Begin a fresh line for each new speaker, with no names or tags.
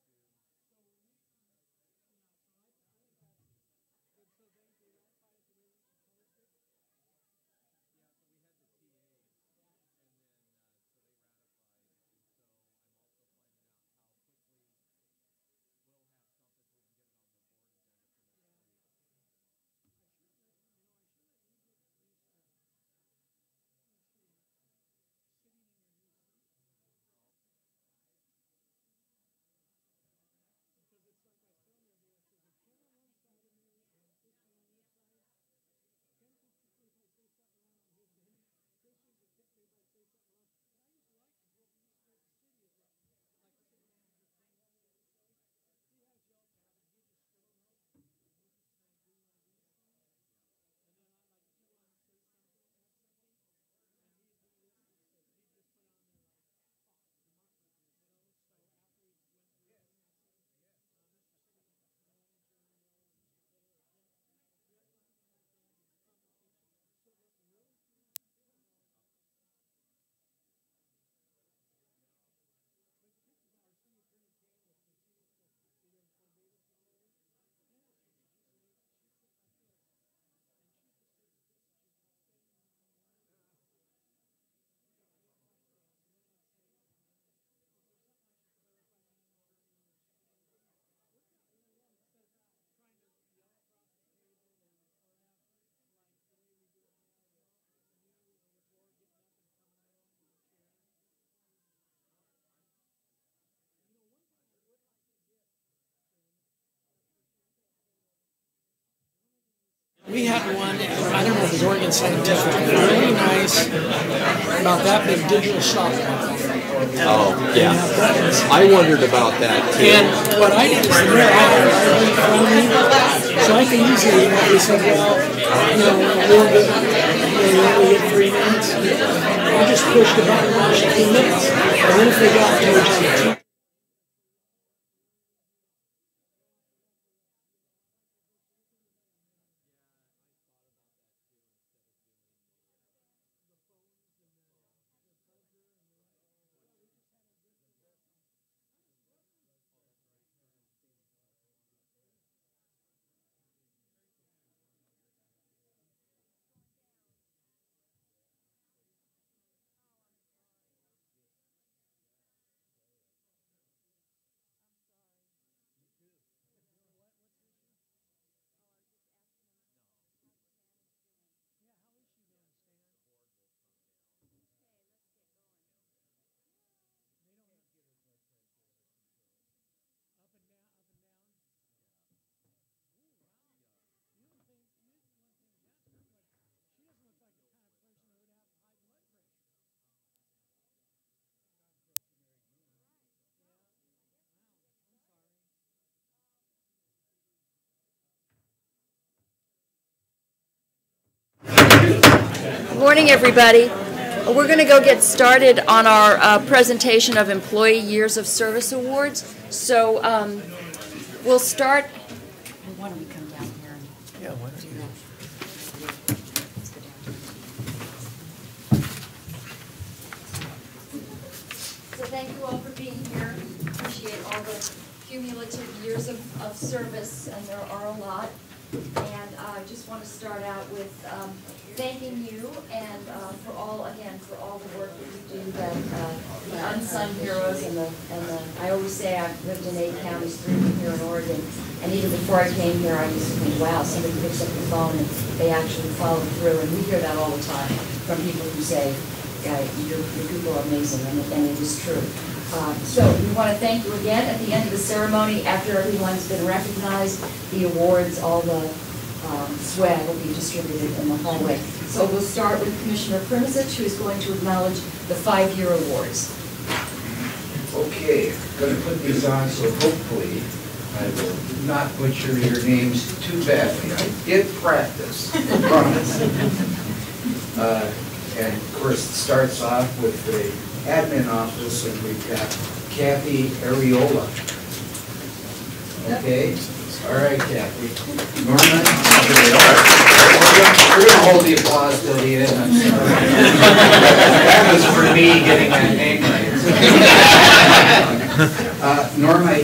We had one, at, I don't know if it was Oregon Scientific, really nice, about that big digital shop.
Oh, yeah. I wondered about that too.
And what I did is the mirror, I had a really phone, so I can easily, you know, say, well, you know, we'll get, you know, we'll get three minutes. I just pushed the button, watched a few minutes, and then if they got towards the
Morning, everybody. We're going to go get started on our uh, presentation of Employee Years of Service Awards. So um, we'll start. Why don't we come down here? So thank you all for being here. Appreciate all the cumulative years of, of service, and there are a lot. And uh, I just want to start out with um, thanking you and uh, for all, again, for all the work that you do, that uh, the unsung heroes and the, and the, I always say I've lived in eight counties, three of them here in Oregon. And even before I came here, I used to think, wow, somebody picks up the phone and they actually follow through. And we hear that all the time from people who say, yeah, your, your people are amazing, and it- and it is true. Uh, So we want to thank you again at the end of the ceremony, after everyone's been recognized, the awards, all the um, swag will be distributed in the hallway. So we'll start with Commissioner Primusit, who is going to acknowledge the five-year awards.
Okay, gonna put these on, so hopefully I will not butcher your names too badly. I did practice, I promise. Uh, And of course, it starts off with the admin office, and we've got Kathy Ariola. Okay, all right, Kathy. Norman, there you are. We're gonna hold the applause till the end, I'm sorry. That was for me getting that name right. Uh, Norma